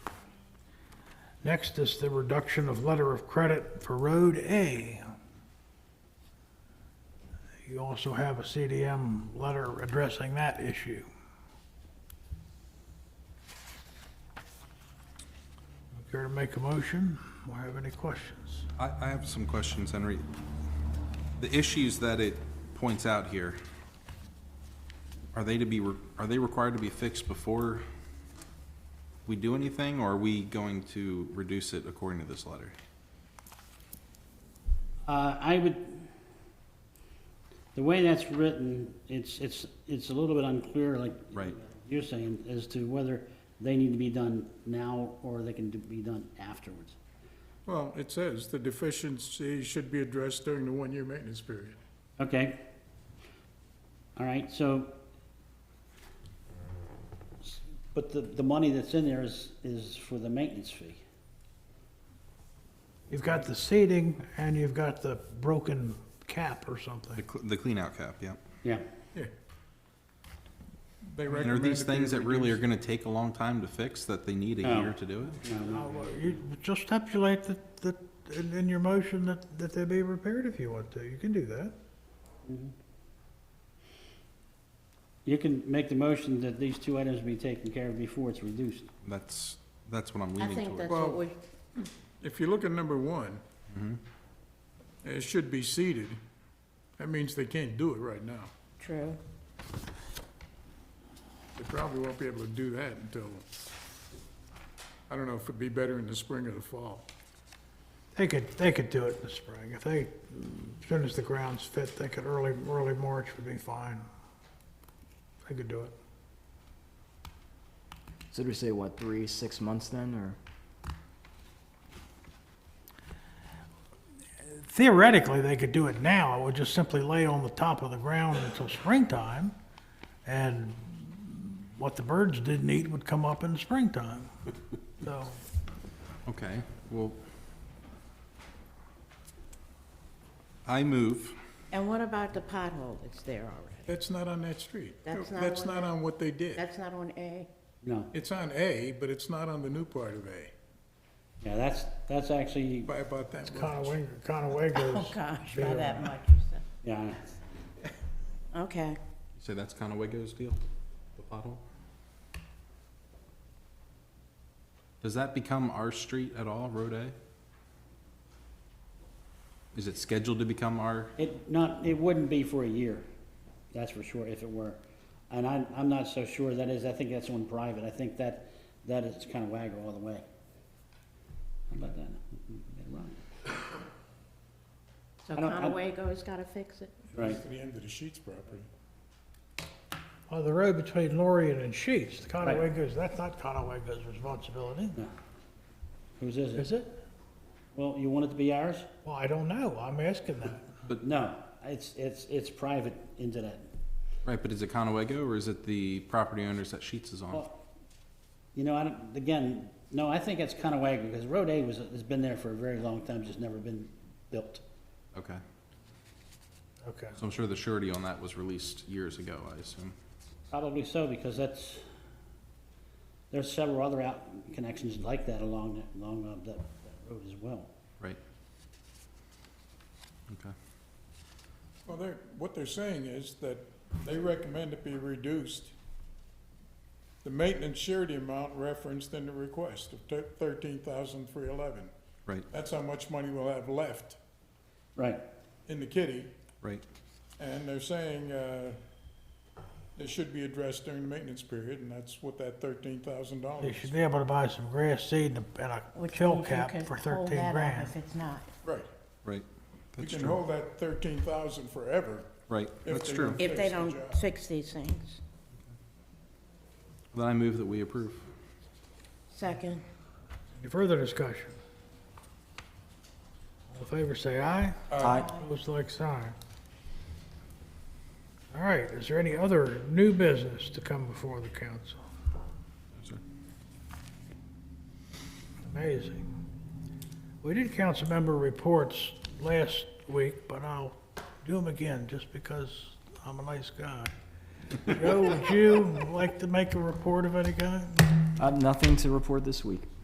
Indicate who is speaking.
Speaker 1: Next is the reduction of letter of credit for Road A. You also have a CDM letter addressing that issue. Care to make a motion or have any questions?
Speaker 2: I, I have some questions, Henry. The issues that it points out here, are they to be, re- are they required to be fixed before we do anything, or are we going to reduce it according to this letter?
Speaker 3: Uh, I would, the way that's written, it's, it's, it's a little bit unclear, like
Speaker 2: Right.
Speaker 3: you're saying, as to whether they need to be done now or they can do- be done afterwards.
Speaker 4: Well, it says the deficiency should be addressed during the one-year maintenance period.
Speaker 3: Okay. All right, so, but the, the money that's in there is, is for the maintenance fee.
Speaker 1: You've got the seating and you've got the broken cap or
Speaker 2: The,
Speaker 1: something.
Speaker 2: cl- the clean out cap, yeah.
Speaker 3: Yeah.
Speaker 4: Yeah. They
Speaker 2: And are
Speaker 4: recommend.
Speaker 2: these
Speaker 4: that they
Speaker 2: things that really are
Speaker 4: reduce-
Speaker 2: gonna take a long time to fix, that they need a
Speaker 3: No.
Speaker 2: year to do it?
Speaker 3: no, no.
Speaker 1: Now, uh, you Just stipulate that, that, in in your motion that, that they be repaired if you want to. You can do that.
Speaker 3: You can make the motion that these two items be taken care of before it's reduced.
Speaker 2: That's, that's what I'm
Speaker 5: I
Speaker 2: leaning
Speaker 5: think
Speaker 2: toward.
Speaker 5: that's what
Speaker 4: Well-
Speaker 5: we,
Speaker 4: If you look at number one,
Speaker 2: Mm-hmm.
Speaker 4: it should be seeded. That means they can't do it right now.
Speaker 5: true.
Speaker 4: They probably won't be able to do that until, I don't know if it'd be better in the spring or the fall.
Speaker 1: They could, they could do it in the spring. If they, as soon as the ground's fit, they could early, early March would be fine. They could do it.
Speaker 6: So did we say what three, six months then, or
Speaker 1: Theoretically, they could do it now. It would just simply lay on the top of the ground until springtime. And what the birds didn't eat would come up in the springtime. So,
Speaker 2: Okay, well. I move,
Speaker 5: And what about the pothole that's there already?
Speaker 4: That's not on that street.
Speaker 5: That's not
Speaker 4: That's
Speaker 5: on
Speaker 4: not
Speaker 5: that.
Speaker 4: on what they did.
Speaker 5: That's not on A?
Speaker 3: No,
Speaker 4: It's on A, but it's not on the new part of A,
Speaker 3: yeah, that's, that's actually,
Speaker 4: by about that much.
Speaker 1: Conaway, Conaway
Speaker 5: Oh,
Speaker 1: goes,
Speaker 5: gosh,
Speaker 1: Yeah.
Speaker 5: by that much.
Speaker 3: yeah,
Speaker 5: Okay.
Speaker 2: say that's kinda Wago's deal, the pothole? Does that become our street at all, Road A? Is it scheduled to become our,
Speaker 3: it not, it wouldn't be for a year, that's for sure, if it were. And I'm, I'm not so sure that is, I think that's on private, I think that, that is kind of wagger all the way. How about that?
Speaker 5: So
Speaker 3: I don't- I-
Speaker 5: Conowago's got to fix it?
Speaker 3: Right,
Speaker 4: To the end of the Sheets property.
Speaker 1: well, the road between Lorien and Sheets, the
Speaker 3: Right.
Speaker 1: Conaway goes, that's not Conaway goes responsibility,
Speaker 3: whose is it?
Speaker 1: is it?
Speaker 3: Well, you want it to be ours?
Speaker 1: Well, I don't know. I'm asking that.
Speaker 3: No, it's, it's, it's private into that.
Speaker 2: right, but is it Conowago or is it the property owners that Sheets is on?
Speaker 3: Well, You know, I don't, again, no, I think it's kind of wagger, because Road A was, has been there for a very long time, just never been built.
Speaker 2: Okay,
Speaker 1: Okay.
Speaker 2: so I'm sure the surety on that was released years ago, I assume.
Speaker 3: Probably so, because that's, there's several other out connections like that along, that- along uh, that, that road as well.
Speaker 2: Right. Okay.
Speaker 4: Well, they're, what they're saying is that they recommend it be reduced. The maintenance surety amount referenced in the request of thirteen thousand three eleven.
Speaker 2: Right,
Speaker 4: That's how much money we'll have left
Speaker 3: Right,
Speaker 4: in the kitty,
Speaker 2: right.
Speaker 4: and they're saying, uh, it should be addressed during the maintenance period, and that's what that thirteen thousand
Speaker 1: They
Speaker 4: dollars
Speaker 1: should
Speaker 4: is.
Speaker 1: be able to buy some grass seed and a- and a
Speaker 5: Which
Speaker 1: kill
Speaker 5: means you
Speaker 1: cap
Speaker 5: can
Speaker 1: for
Speaker 5: hold that
Speaker 1: thirteen
Speaker 5: off
Speaker 1: grand.
Speaker 5: If it's not.
Speaker 4: Right,
Speaker 2: Right.
Speaker 4: you
Speaker 2: That's
Speaker 4: can
Speaker 2: true.
Speaker 4: hold that thirteen thousand forever.
Speaker 2: Right,
Speaker 4: if
Speaker 2: that's
Speaker 4: they
Speaker 2: true.
Speaker 4: don't-
Speaker 5: If they
Speaker 4: Fix the
Speaker 5: don't
Speaker 4: job.
Speaker 5: fix these things.
Speaker 2: Then I move that we approve.
Speaker 5: Second.
Speaker 1: Any further discussion? All in favor, say aye.
Speaker 6: Aye.
Speaker 1: Opposed, like sign. All right, is there any other new business to come before the council?
Speaker 2: sir.
Speaker 1: Amazing. We did council member reports last week, but I'll do them again just because I'm a nice guy. Joe, would you like to make a report of any kind?
Speaker 6: I have nothing Uh, to report this week?